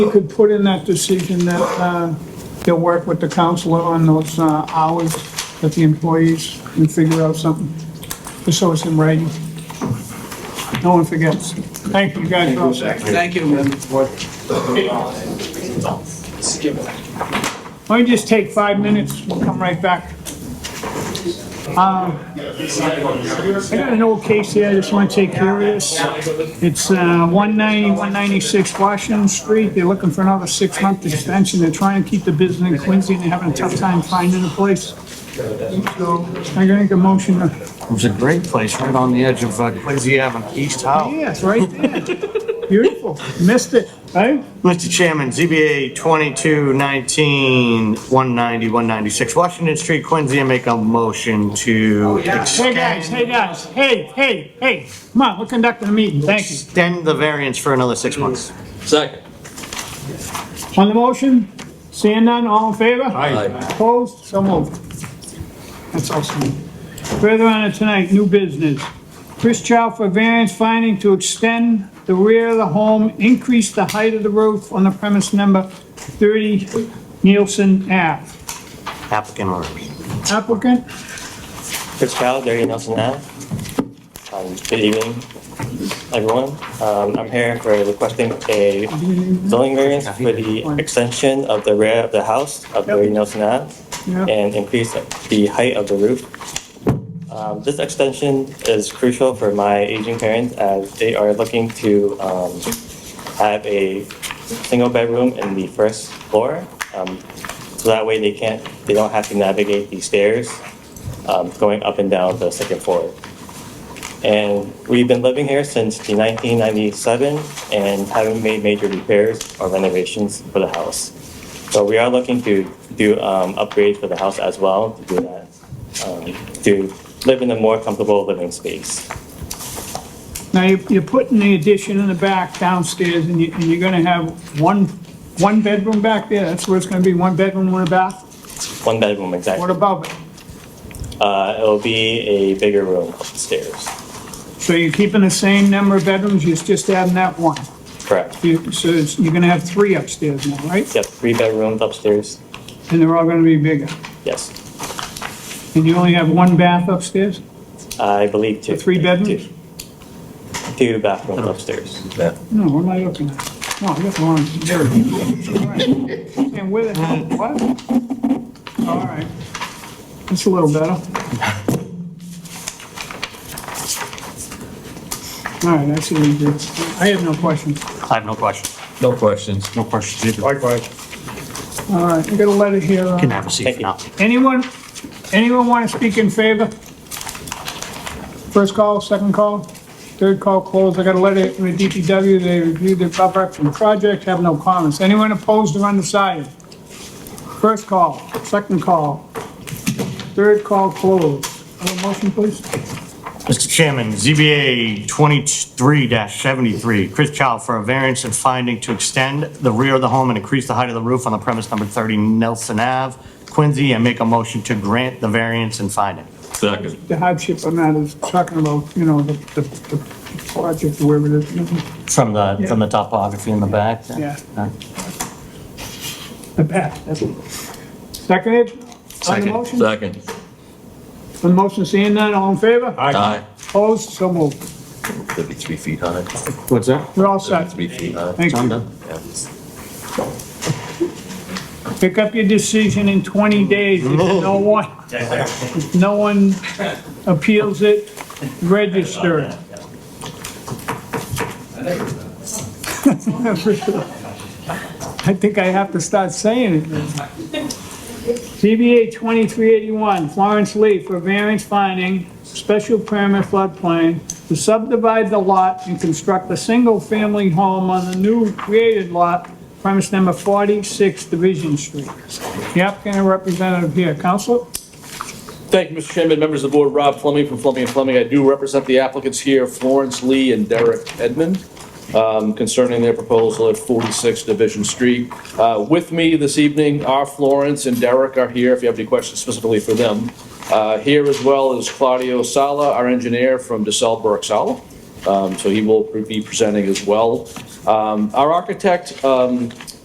You could put in that decision that uh, you'll work with the counselor on those uh, hours that the employees can figure out something, just so it's in writing. No one forgets. Thank you guys. all. Thank you, Madam. Let me just take five minutes, we'll come right back. Uh, I got an old case here, I just want to take care of this. It's uh, 190, 196 Washington Street, they're looking for another six-month extension, they're trying to keep the business in Quincy, and they're having a tough time finding a place. I gotta make a motion, to- It's a great place, right on the edge of uh, Quincy Avenue, East Howe. yes, right there. Beautiful, missed it, right? Mr. Chairman, ZBA 2219, 190, 196 Washington Street, Quincy, I make a motion to Hey, guys, hey, extend, guys, hey, hey, hey, come on, we're conducting a meeting, thank you. extend the variance for another six months. Second. On the motion, seeing none, all in favor? Aye. Opposed? So moved. That's awesome. Further on to tonight, new business. Chris Chow for variance finding to extend the rear of the home, increase the height of the roof on the premise number 30 Nielsen Ave. Applicant or repeat. Applicant, Chris Powell, Derry Nelson Ave. Um, Good evening, everyone. Um, I'm here for requesting a zoning variance for the extension of the rear of the house of Derry Nelson Ave Yeah. and increase the height of the roof. Um, This extension is crucial for my aging parents as they are looking to um, have a single bedroom in the first floor. Um, So that way they can't, they don't have to navigate the stairs um, going up and down the second floor. And we've been living here since the 1997 and haven't made major repairs or renovations for the house. So we are looking to do um, upgrades for the house as well, to do that, um, to live in a more comfortable living space. now you- you're putting the addition in the back downstairs and you- and you're gonna have one, one bedroom back there? That's where it's gonna be, one bedroom, one bath? One bedroom What exactly. above it? Uh, It'll be a bigger room upstairs, So you're keeping the same number of bedrooms, you're just adding that one? correct. You- So it's- you're gonna have three upstairs now, right? Yep, three bedrooms upstairs, And they're all gonna be bigger. yes. And you only have one bath upstairs? I believe two. The three bedrooms? Two. Two bathrooms upstairs. No, what am I looking at? No, I got the wrong, there it is. All right. And where the hell, what? All right. That's a little better. All right, that's what we did. I have no questions. I have no questions. No questions. No questions either. Likewise. All right, I got a letter here. uh, Can have a seat Thank for you. now. Anyone, anyone want to speak in favor? First call, second call, third call closed. I got a letter from the DPW. They reviewed the property from the project, have no comments. Anyone opposed or undecided? First call, second call, third call closed. Have a motion, please? Mr. Chairman, ZBA 23-73, Chris Chow for a variance and finding to extend the rear of the home and increase the height of the roof on the premise number 30 Nelson Ave, Quincy, and make a motion to grant the variance and finding. Second. The hardship on that is talking about, you know, the, the the project, wherever it is, From the, from the topography in the back? Yeah. Uh, the path. that's it. Seconded? On the Second. motion? On Second. the motion, seeing none, all in favor? Aye. Opposed, so moved. Thirty-three feet high. What's that? We're all set. Thirty-three feet high. Thank I'm you. done. Pick up your decision in 20 days. If no one, if no one appeals it, register it. I think I have to start saying it. now. CBA 2381, Florence Lee for variance finding, special permit floodplain to subdivide the lot and construct a single-family home on the new created lot, premise number 46 Division Street. The applicant and representative here, Counselor? Thank you, Mr. Chairman, members of the board, Rob Fleming from Fleming and Fleming. I do represent the applicants here, Florence Lee and Derek Edmond, um, concerning their proposal at 46 Division Street. Uh, With me this evening are Florence and Derek are here, if you have any questions specifically for them. Uh, Here as well is Claudio Sala, our engineer from DeSalle Burke Sala. Um, So he will be presenting as well. Um, Our architect um,